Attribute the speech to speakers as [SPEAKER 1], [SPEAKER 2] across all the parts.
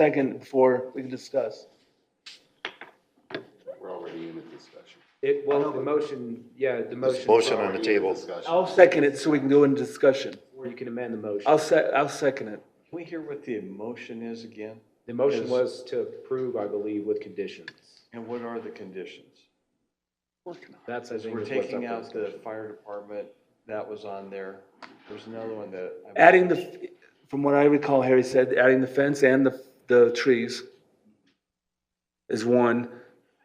[SPEAKER 1] second for, we can discuss.
[SPEAKER 2] We're already in a discussion.
[SPEAKER 3] It, well, the motion, yeah, the motion.
[SPEAKER 4] Motion on the
[SPEAKER 2] Already in a
[SPEAKER 4] table.
[SPEAKER 2] discussion.
[SPEAKER 1] I'll second it so we can go into discussion.
[SPEAKER 3] Or you can amend the motion.
[SPEAKER 1] I'll se, I'll second it.
[SPEAKER 5] Can we hear what the motion is again?
[SPEAKER 3] The motion was to approve, I believe, with conditions.
[SPEAKER 5] And what are the conditions?
[SPEAKER 3] That's, I think,
[SPEAKER 5] We're
[SPEAKER 3] is what's
[SPEAKER 5] taking
[SPEAKER 3] up
[SPEAKER 5] out
[SPEAKER 3] for
[SPEAKER 5] the
[SPEAKER 3] discussion.
[SPEAKER 5] fire department, that was on there. There's another one that. I-
[SPEAKER 1] Adding the, from what I recall, Harry said, adding the fence and the, the trees is one.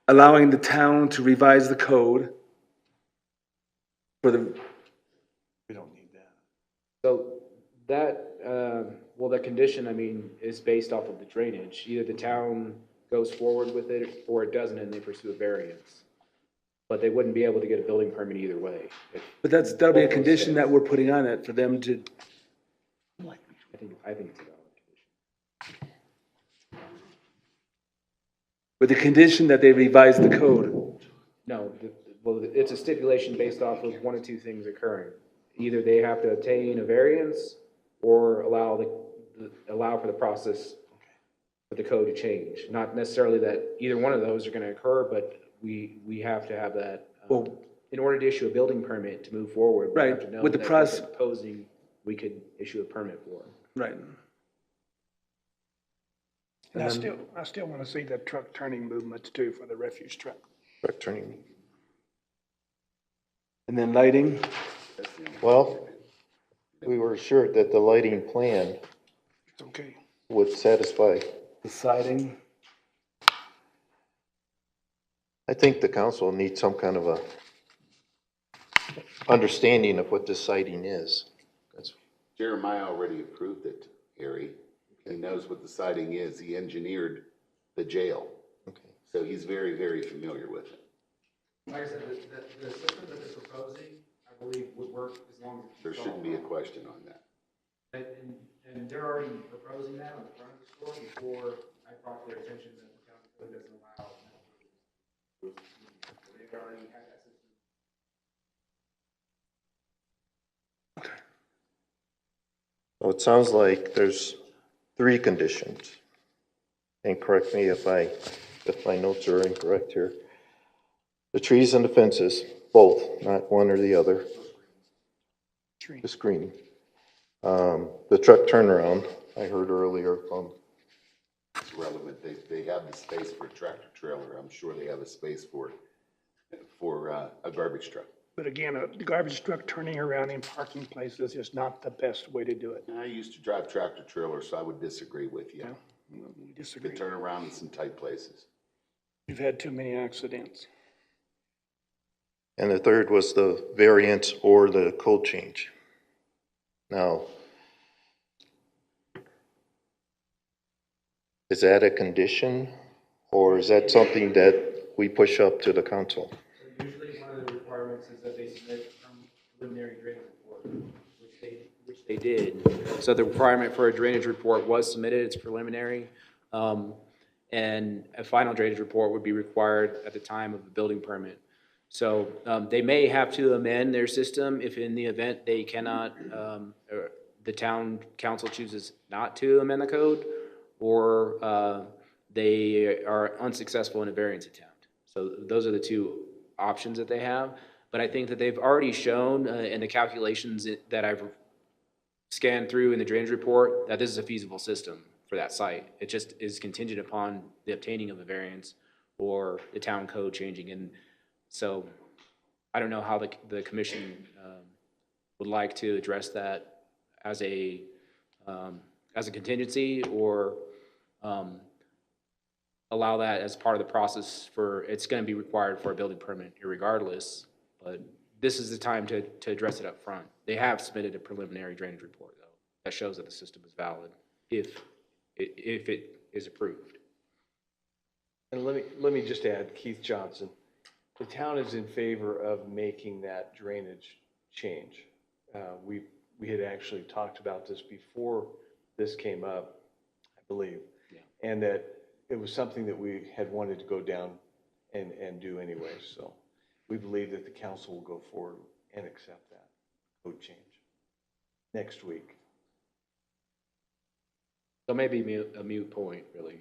[SPEAKER 1] Allowing the town to revise the code for the,
[SPEAKER 5] We don't need that.
[SPEAKER 3] So that, um, well, the condition, I mean, is based off of the drainage. Either the town goes forward with it or it doesn't and they pursue a variance. But they wouldn't be able to get a building permit either way. If-
[SPEAKER 1] but that's, that'll be a condition that we're putting on it for them to,
[SPEAKER 3] I think, I think it's a valid condition.
[SPEAKER 1] with the condition that they revise the code.
[SPEAKER 3] No, the- well, it's a stipulation based off of one of two things occurring. Either they have to obtain a variance or allow the, allow for the process for the code to change. Not necessarily that either one of those are going to occur, but we, we have to have that. um,
[SPEAKER 1] Well-
[SPEAKER 3] In order to issue a building permit to move forward. we have
[SPEAKER 1] Right,
[SPEAKER 3] to know
[SPEAKER 1] with the
[SPEAKER 3] that
[SPEAKER 1] proce-
[SPEAKER 3] we're Proposing, we could issue a permit for.
[SPEAKER 1] Right.
[SPEAKER 6] And I still, I still want to see the truck turning movements too for the refuse truck.
[SPEAKER 4] Truck turning.
[SPEAKER 1] And then lighting,
[SPEAKER 4] Well, we were assured that the lighting plan
[SPEAKER 6] It's okay.
[SPEAKER 4] would satisfy.
[SPEAKER 1] the siding.
[SPEAKER 4] I think the council needs some kind of a understanding of what this siding is. That's-
[SPEAKER 2] Jeremiah already approved it, Harry. He knows what the siding is. He engineered the jail.
[SPEAKER 4] okay.
[SPEAKER 2] So he's very, very familiar with it.
[SPEAKER 7] Like I said, the, the, the system that they're proposing, I believe, would work as long as.
[SPEAKER 2] There shouldn't be a question on that.
[SPEAKER 7] And, and- and they're already proposing that on the front of the store before I brought their attention that the county code doesn't allow. They already had that system.
[SPEAKER 4] Well, it sounds like there's three conditions. And correct me if I, if my notes are incorrect here. The trees and the fences, both, not one or the other. The screen. Um, The truck turnaround, I heard earlier from,
[SPEAKER 2] It's relevant. They, they have the space for a tractor trailer. I'm sure they have a space for, for uh, a garbage truck.
[SPEAKER 6] But again, a garbage truck turning around in parking places is not the best way to do it.
[SPEAKER 2] I used to drive tractor trailers, so I would disagree with you.
[SPEAKER 6] We
[SPEAKER 2] You
[SPEAKER 6] disagree.
[SPEAKER 2] could turn around in some tight places.
[SPEAKER 6] We've had too many accidents.
[SPEAKER 4] and the third was the variance or the code change. Now, is that a condition, or is that something that we push up to the council?
[SPEAKER 7] So usually one of the requirements is that they submit from preliminary drainage report, which they
[SPEAKER 3] which they did. So the requirement for a drainage report was submitted, it's preliminary. Um, And a final drainage report would be required at the time of the building permit. So um, they may have to amend their system if in the event they cannot, um, or the town council chooses not to amend the code, or uh, they are unsuccessful in a variance attempt. So those are the two options that they have. But I think that they've already shown uh, in the calculations that I've scan through in the drainage report that this is a feasible system for that site. It just is contingent upon the obtaining of a variance or the town code changing. And so I don't know how the, the commission um, would like to address that as a, um, as a contingency or um, allow that as part of the process for, it's going to be required for a building permit regardless. But this is the time to, to address it up front. They have submitted a preliminary drainage report, though, that shows that the system is valid if, i- if it is approved.
[SPEAKER 5] And let me, let me just add Keith Johnson. The town is in favor of making that drainage change. Uh, We, we had actually talked about this before this came up, I believe. And that it was something that we had wanted to go down and, and do anyway. So we believe that the council will go forward and accept that code change next week.
[SPEAKER 3] So maybe a mute point, really.